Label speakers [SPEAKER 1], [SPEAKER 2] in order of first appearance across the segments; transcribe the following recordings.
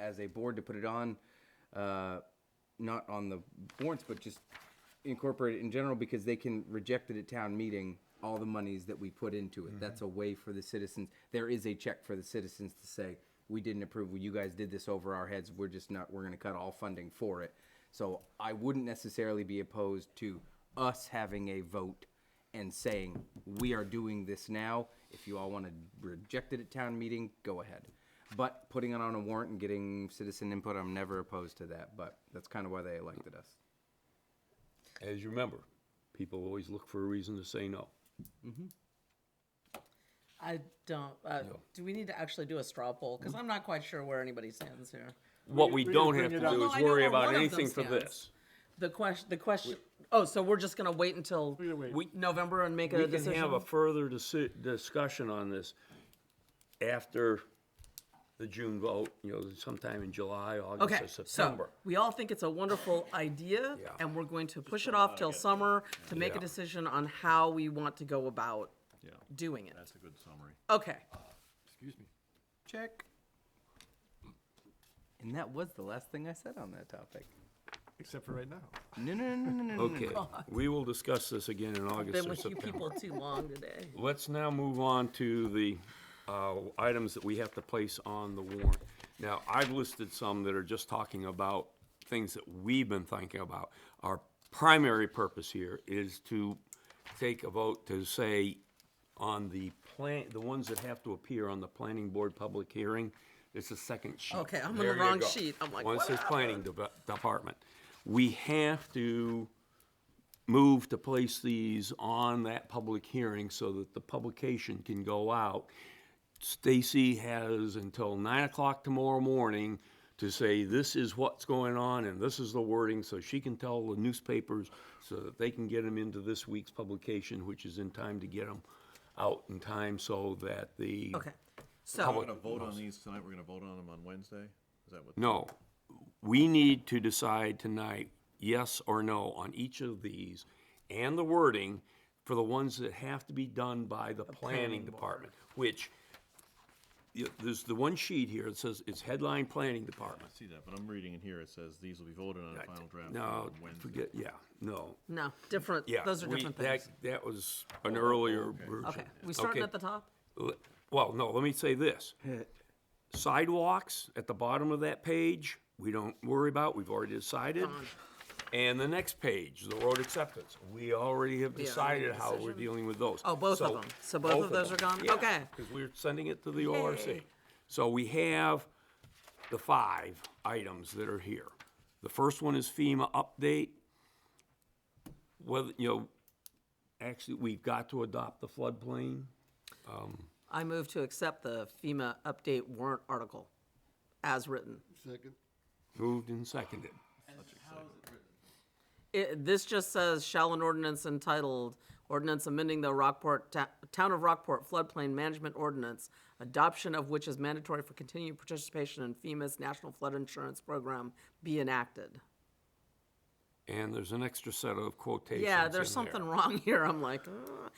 [SPEAKER 1] as a board to put it on, uh, not on the warrants, but just incorporate it in general because they can reject it at town meeting, all the monies that we put into it. That's a way for the citizens, there is a check for the citizens to say, we didn't approve, you guys did this over our heads, we're just not, we're gonna cut all funding for it. So I wouldn't necessarily be opposed to us having a vote and saying, we are doing this now. If you all want to reject it at town meeting, go ahead. But putting it on a warrant and getting citizen input, I'm never opposed to that, but that's kind of why they elected us.
[SPEAKER 2] As you remember, people always look for a reason to say no.
[SPEAKER 3] I don't. Uh, Do we need to actually do a straw poll? Because I'm not quite sure where anybody stands here.
[SPEAKER 2] What we
[SPEAKER 4] we
[SPEAKER 2] don't
[SPEAKER 4] just
[SPEAKER 2] have
[SPEAKER 4] bring
[SPEAKER 2] to
[SPEAKER 4] it up.
[SPEAKER 2] do
[SPEAKER 3] Well,
[SPEAKER 2] is
[SPEAKER 3] I know
[SPEAKER 2] worry
[SPEAKER 3] where
[SPEAKER 2] about
[SPEAKER 3] one of
[SPEAKER 2] anything
[SPEAKER 3] them
[SPEAKER 2] for
[SPEAKER 3] stands.
[SPEAKER 2] this.
[SPEAKER 3] The question. The question. Oh, so we're just gonna wait until
[SPEAKER 4] gonna wait.
[SPEAKER 3] we- November and make a
[SPEAKER 2] We can
[SPEAKER 3] decision.
[SPEAKER 2] have a further disi- discussion on this after the June vote, you know, sometime in July, August,
[SPEAKER 3] okay.
[SPEAKER 2] or
[SPEAKER 3] So
[SPEAKER 2] September.
[SPEAKER 3] we all think it's a wonderful idea,
[SPEAKER 2] Yeah.
[SPEAKER 3] and we're going to push it off till summer to make a
[SPEAKER 2] Yeah.
[SPEAKER 3] decision on how we want to go about
[SPEAKER 5] Yeah,
[SPEAKER 3] doing it.
[SPEAKER 5] that's a good summary.
[SPEAKER 3] Okay.
[SPEAKER 4] Excuse me.
[SPEAKER 1] Check. And that was the last thing I said on that topic.
[SPEAKER 4] Except for right now.
[SPEAKER 1] No, no, no, no, no, no, no.
[SPEAKER 3] Mm-hmm.
[SPEAKER 2] Okay, we will discuss this again in August
[SPEAKER 3] Been
[SPEAKER 2] or
[SPEAKER 3] with you
[SPEAKER 2] September.
[SPEAKER 3] people too long today.
[SPEAKER 2] Let's now move on to the uh, items that we have to place on the warrant. Now, I've listed some that are just talking about things that we've been thinking about. Our primary purpose here is to take a vote to say on the plan, the ones that have to appear on the planning board public hearing, it's the second sheet.
[SPEAKER 3] Okay, I'm on the
[SPEAKER 2] There you
[SPEAKER 3] wrong
[SPEAKER 2] go.
[SPEAKER 3] sheet. I'm like,
[SPEAKER 2] One
[SPEAKER 3] what
[SPEAKER 2] says planning deve- department. We have to move to place these on that public hearing so that the publication can go out. Stacy has until nine o'clock tomorrow morning to say, this is what's going on and this is the wording, so she can tell the newspapers so that they can get them into this week's publication, which is in time to get them out in time so that the.
[SPEAKER 3] Okay. So
[SPEAKER 2] Public
[SPEAKER 5] We're gonna vote on these tonight, we're gonna vote on them on Wednesday? Is that what?
[SPEAKER 2] No, we need to decide tonight, yes or no, on each of these and the wording for the ones that have to be done by the planning department, which, you- there's the one sheet here that says it's headline planning department.
[SPEAKER 5] I see that, but I'm reading in here, it says these will be voted on in final draft
[SPEAKER 2] No,
[SPEAKER 5] on Wednesday.
[SPEAKER 2] forget, yeah, no,
[SPEAKER 3] no, different.
[SPEAKER 2] yeah.
[SPEAKER 3] those are
[SPEAKER 2] we-
[SPEAKER 3] different
[SPEAKER 2] that-
[SPEAKER 3] things.
[SPEAKER 2] That was an earlier version.
[SPEAKER 3] Okay. We starting
[SPEAKER 2] Okay.
[SPEAKER 3] at the top.
[SPEAKER 2] Le- Well, no, let me say this. Sidewalks at the bottom of that page, we don't worry about, we've already decided. And the next page, the road acceptance, we already have
[SPEAKER 3] already
[SPEAKER 2] decided how we're
[SPEAKER 3] decision.
[SPEAKER 2] dealing with those.
[SPEAKER 3] Oh, both of them. So both of those are gone? Okay.
[SPEAKER 2] Because we're sending it to the ORC. So we have the five items that are here. The first one is FEMA update. Whether, you know, actually, we've got to adopt the floodplain.
[SPEAKER 3] I move to accept the FEMA update warrant article as written.
[SPEAKER 4] Second.
[SPEAKER 2] Moved and seconded.
[SPEAKER 3] It, this just says, shall an ordinance entitled, ordinance amending the Rockport, Ta- Town of Rockport floodplain management ordinance, adoption of which is mandatory for continued participation in FEMA's National Flood Insurance Program, be enacted.
[SPEAKER 2] And there's an extra set of quotations.
[SPEAKER 3] Yeah,
[SPEAKER 2] in
[SPEAKER 3] there's something
[SPEAKER 2] there.
[SPEAKER 3] wrong here. I'm like, "Ugh."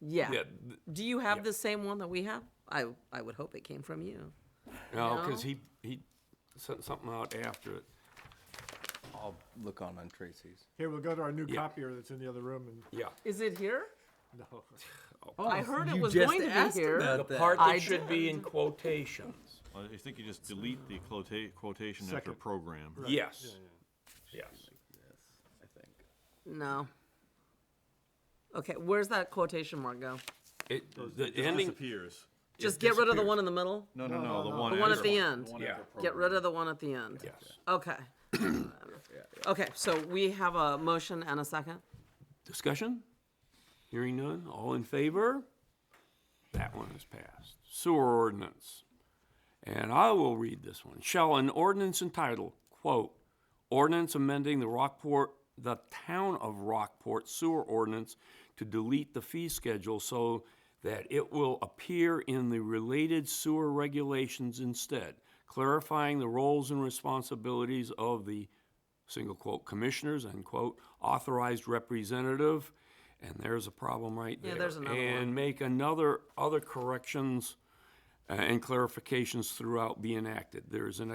[SPEAKER 3] yeah.
[SPEAKER 2] Yeah, th-
[SPEAKER 3] Do you have the same one that we have? I, I would hope it came from you.
[SPEAKER 2] No, because he, he sent something out after it.
[SPEAKER 1] I'll look on on Tracy's.
[SPEAKER 4] Here, we'll go to our new copier that's in the other room and,
[SPEAKER 2] Yeah.
[SPEAKER 3] Is it here?
[SPEAKER 4] no.
[SPEAKER 3] I heard it
[SPEAKER 1] you
[SPEAKER 3] was
[SPEAKER 1] just
[SPEAKER 3] going to
[SPEAKER 1] asked
[SPEAKER 3] be here.
[SPEAKER 1] about
[SPEAKER 2] The
[SPEAKER 1] that.
[SPEAKER 2] part
[SPEAKER 3] I
[SPEAKER 2] that should be in quotations.
[SPEAKER 5] Well, I think you just delete the quota- quotation after
[SPEAKER 4] Second.
[SPEAKER 5] program.
[SPEAKER 2] Yes. Yes.
[SPEAKER 1] I think.
[SPEAKER 3] No. Okay, where's that quotation mark go?
[SPEAKER 2] It, the
[SPEAKER 5] It
[SPEAKER 2] ending,
[SPEAKER 5] disappears.
[SPEAKER 3] Just get rid of the one in the middle?
[SPEAKER 5] No, no, no, the one.
[SPEAKER 3] The one at
[SPEAKER 5] after-
[SPEAKER 3] the end.
[SPEAKER 5] one after
[SPEAKER 3] Get
[SPEAKER 5] program.
[SPEAKER 3] rid of the one at the end?
[SPEAKER 2] yes.
[SPEAKER 3] Okay. Okay, so we have a motion and a second?
[SPEAKER 2] Discussion? Hearing none, all in favor? That one is passed. Sewer ordinance. And I will read this one. Shall an ordinance entitled, quote, ordinance amending the Rockport, the town of Rockport sewer ordinance to delete the fee schedule so that it will appear in the related sewer regulations instead, clarifying the roles and responsibilities of the, single quote, commissioners, end quote, authorized representative, and there's a problem right there.
[SPEAKER 3] Yeah, there's another one.
[SPEAKER 2] And make another, other corrections uh, and clarifications throughout be enacted. There is an